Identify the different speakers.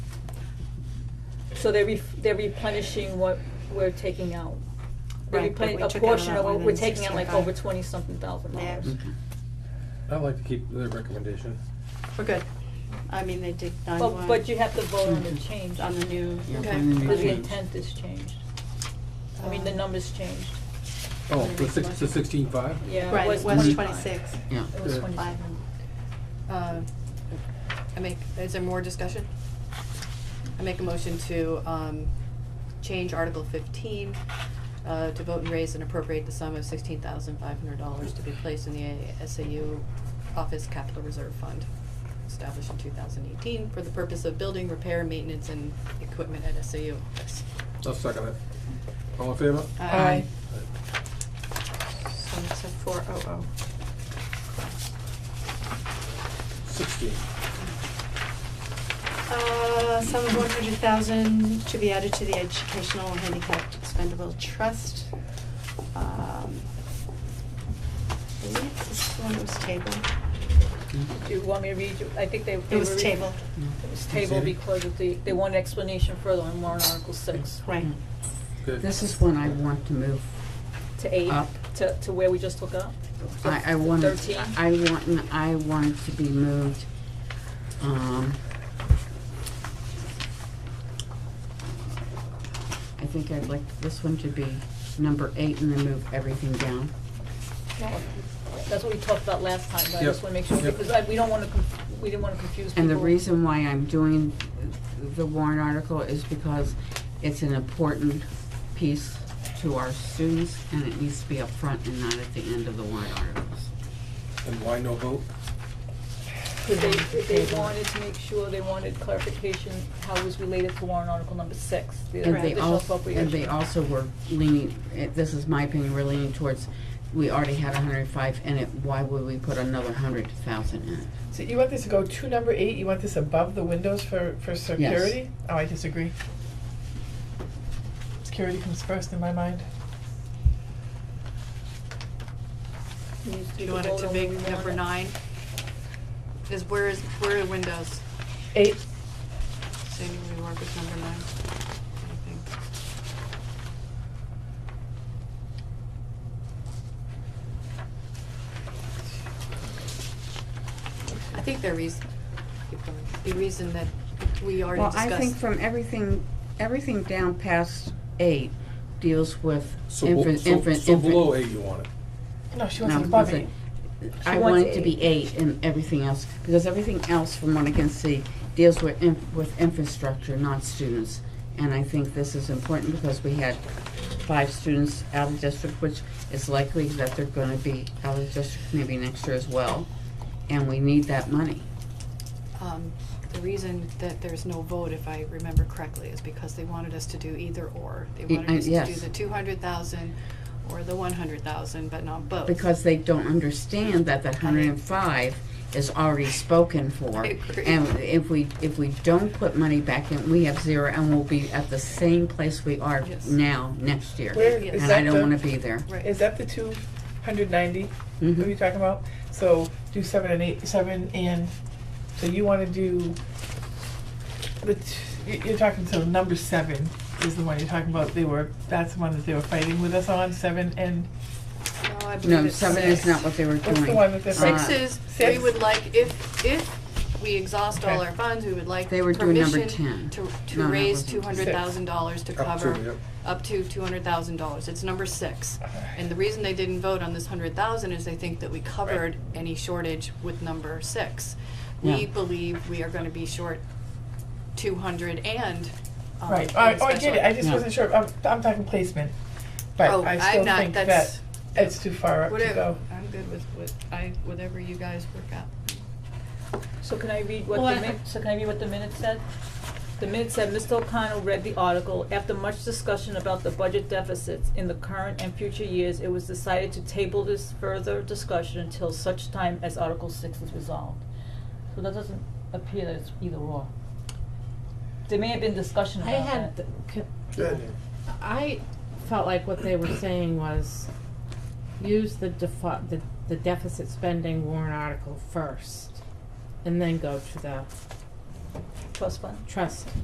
Speaker 1: So they're re- they're replenishing what we're taking out. They're
Speaker 2: Right, but we
Speaker 1: replen-
Speaker 2: took
Speaker 1: a
Speaker 2: out
Speaker 1: portion
Speaker 2: about
Speaker 1: of what we're taking out,
Speaker 2: 165.
Speaker 1: like over twenty something thousand dollars.
Speaker 2: Yeah. Mm-hmm.
Speaker 3: Mm-hmm.
Speaker 4: I like to keep the recommendation.
Speaker 2: We're good. I mean, they did nine
Speaker 1: But,
Speaker 2: one.
Speaker 1: but you have to vote on the change,
Speaker 2: On the new.
Speaker 3: Yeah,
Speaker 2: okay.
Speaker 3: finding the
Speaker 1: because the
Speaker 3: change.
Speaker 1: intent is changed. I mean, the
Speaker 2: Um,
Speaker 1: numbers changed.
Speaker 4: Oh, the six, the sixteen five?
Speaker 1: Yeah,
Speaker 2: Right, it was twenty-six.
Speaker 3: Yeah.
Speaker 1: It was
Speaker 4: Yeah.
Speaker 1: twenty-seven.
Speaker 5: Um, I make, is there more discussion? I make a motion to, um, change Article fifteen, uh, to vote and raise and appropriate the sum of sixteen thousand five hundred dollars to be placed in the SAU Office Capital Reserve Fund, established in two thousand eighteen for the purpose of building, repair, maintenance, and equipment at SAU office.
Speaker 4: I'll second it. All in favor?
Speaker 5: Aye.
Speaker 2: So it's a four oh oh.
Speaker 4: Sixteen.
Speaker 2: Uh, sum of one hundred thousand to be added to the Educational Handicapped Expendable Trust. Um, I believe this one was tabled.
Speaker 1: Do you want me to read, you- I think they, they
Speaker 2: It
Speaker 1: were
Speaker 2: was
Speaker 1: reading-
Speaker 2: tabled,
Speaker 1: It was tabled because of the, they want an explanation further on warrant article six
Speaker 2: right.
Speaker 3: Mm-hmm.
Speaker 4: Good.
Speaker 3: This is one I want to move
Speaker 1: to eight,
Speaker 3: Up.
Speaker 1: to, to where we just took up.
Speaker 3: I, I want, it-
Speaker 1: Thirteen?
Speaker 3: I want, n- I want it to be moved, um. I think I'd like this one to be number eight and then move everything down.
Speaker 1: That's what we talked about last time, but I
Speaker 4: Yep.
Speaker 1: just wanna make sure,
Speaker 4: Yep.
Speaker 1: because I, we don't wanna, conf- we didn't wanna confuse people.
Speaker 3: And the reason why I'm doing the warrant article is because it's an important piece to our students and it needs to be up front and not at the end of the warrant articles.
Speaker 4: And why no vote?
Speaker 1: Because they, if they wanted to make sure, they wanted clarification, how it was related to warrant article number six, the
Speaker 3: And they
Speaker 1: additional
Speaker 3: also, and they
Speaker 1: appropriation.
Speaker 3: also were leaning, eh, this is my opinion, we're leaning towards, we already had hundred and five in it, why would we put another hundred thousand in it?
Speaker 6: So you want this to go to number eight, you want this above the windows for, for security? Oh, I disagree. Security comes first in my mind.
Speaker 5: Do you want it to be number nine? Is where is, where are windows?
Speaker 6: Eight,
Speaker 5: Saying we work with number nine, I think. I think the reason, the reason that we already
Speaker 3: Well,
Speaker 5: discussed.
Speaker 3: I think from everything, everything down past eight deals with
Speaker 4: So,
Speaker 3: infant,
Speaker 4: bo-
Speaker 3: infant,
Speaker 4: so,
Speaker 3: infant.
Speaker 4: so below eight you want it.
Speaker 6: no, she wants
Speaker 3: No,
Speaker 6: it above
Speaker 3: listen,
Speaker 6: eight.
Speaker 3: I
Speaker 1: She
Speaker 3: want
Speaker 1: wants
Speaker 3: it to be eight and everything else, because everything else, from what I can see, deals with, in- with infrastructure, not students. And I think this is important because we had five students out of district, which is likely that they're gonna be out of district maybe next year as well. And we need that money.
Speaker 5: um, the reason that there's no vote, if I remember correctly, is because they wanted us to do either or. They
Speaker 3: Y-
Speaker 5: wanted
Speaker 3: uh,
Speaker 5: us to do
Speaker 3: yes.
Speaker 5: the two hundred thousand or the one hundred thousand, but not both.
Speaker 3: Because they don't understand that that hundred and five is already spoken for.
Speaker 5: I agree.
Speaker 3: And if we, if we don't put money back in, we have zero and we'll be at the same place we are
Speaker 5: Yes.
Speaker 3: now, next year.
Speaker 6: Where
Speaker 5: Yeah.
Speaker 6: is
Speaker 3: And I
Speaker 6: that
Speaker 3: don't wanna
Speaker 6: the,
Speaker 3: be there.
Speaker 5: Right,
Speaker 6: is that the two hundred ninety, what are
Speaker 3: Mhm.
Speaker 6: you talking about? So do seven and eight, seven and, so you wanna do, the, t- you- you're talking, so number seven is the one you're talking about, they were, that's the one that they were fighting with us on, seven and,
Speaker 5: no, I believe
Speaker 3: No,
Speaker 5: it's
Speaker 3: seven is
Speaker 5: six.
Speaker 3: not what they were doing. Uh,
Speaker 6: what's the one that they're fighting?
Speaker 5: Six is, we
Speaker 6: Six.
Speaker 5: would like, if, if we exhaust all
Speaker 6: Okay.
Speaker 5: our funds, we would like
Speaker 3: They were doing number 10.
Speaker 5: permission to,
Speaker 3: No,
Speaker 5: to
Speaker 3: no, it
Speaker 5: raise
Speaker 3: wasn't.
Speaker 5: two hundred thousand dollars to
Speaker 4: Up
Speaker 5: cover
Speaker 4: to, yep.
Speaker 5: up to two hundred thousand dollars. It's number six. And the reason they didn't vote on this hundred thousand is they think that we covered any shortage with number six. We
Speaker 3: Yeah.
Speaker 5: believe we are gonna be short two hundred and, um,
Speaker 6: Right,
Speaker 5: in
Speaker 6: oh, I- oh, I
Speaker 5: special
Speaker 6: get it, I just
Speaker 3: Yeah.
Speaker 6: wasn't sure, I'm, I'm talking placement, but
Speaker 5: Oh,
Speaker 6: I
Speaker 5: I'm
Speaker 6: still
Speaker 5: not-
Speaker 6: think
Speaker 5: that's-
Speaker 6: that it's too far up to go.
Speaker 5: Whatever, I'm good with, with, I, whatever you guys work out.
Speaker 1: So can I read what
Speaker 2: Well, I-
Speaker 1: the min, so can I read what the minute said? The minute said, Mr. O'Connell read the article. After much discussion about the budget deficits in the current and future years, it was decided to table this further discussion until such time as Article six is resolved. So that doesn't appear that it's either or. There may have been discussion
Speaker 7: I
Speaker 1: about that.
Speaker 7: had, c- I felt like what they were saying was, use the default, the, the deficit spending warrant article first, and then go to the
Speaker 1: Trust fund?
Speaker 7: trust